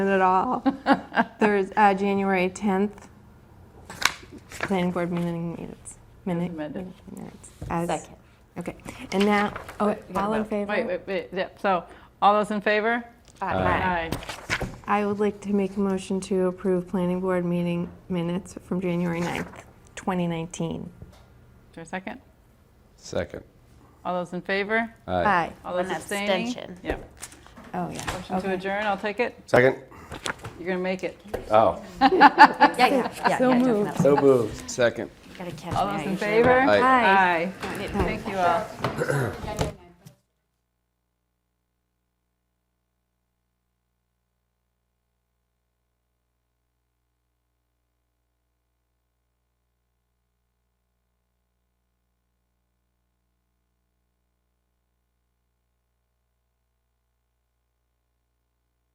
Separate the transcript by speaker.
Speaker 1: at all. There's uh, January 10th, planning board meeting minutes. minute-
Speaker 2: amended.
Speaker 1: Minutes. as-
Speaker 3: Second.
Speaker 1: Okay, and now, oh,
Speaker 2: We gotta
Speaker 1: all in
Speaker 2: vote. Wait,
Speaker 1: favor?
Speaker 2: wait, wait, yeah, so, all those in favor?
Speaker 1: Aye. I would like to make a motion to approve planning board meeting minutes from January 9th, 2019.
Speaker 2: Is there a second?
Speaker 4: Second.
Speaker 2: All those in favor?
Speaker 1: Aye.
Speaker 2: All those
Speaker 3: One
Speaker 2: abstaining?
Speaker 3: abstention.
Speaker 2: Yeah,
Speaker 1: Oh, yeah.
Speaker 2: motion to adjourn, I'll take it,
Speaker 4: Second?
Speaker 2: you're gonna make it.
Speaker 4: Oh,
Speaker 3: Yeah, yeah, yeah, yeah, definitely.
Speaker 4: so moved. Second.
Speaker 3: Gotta catch me
Speaker 2: All those
Speaker 3: out
Speaker 2: in
Speaker 3: usually.
Speaker 2: favor?
Speaker 4: Aye.
Speaker 1: Aye.
Speaker 2: Aye. Thank you all.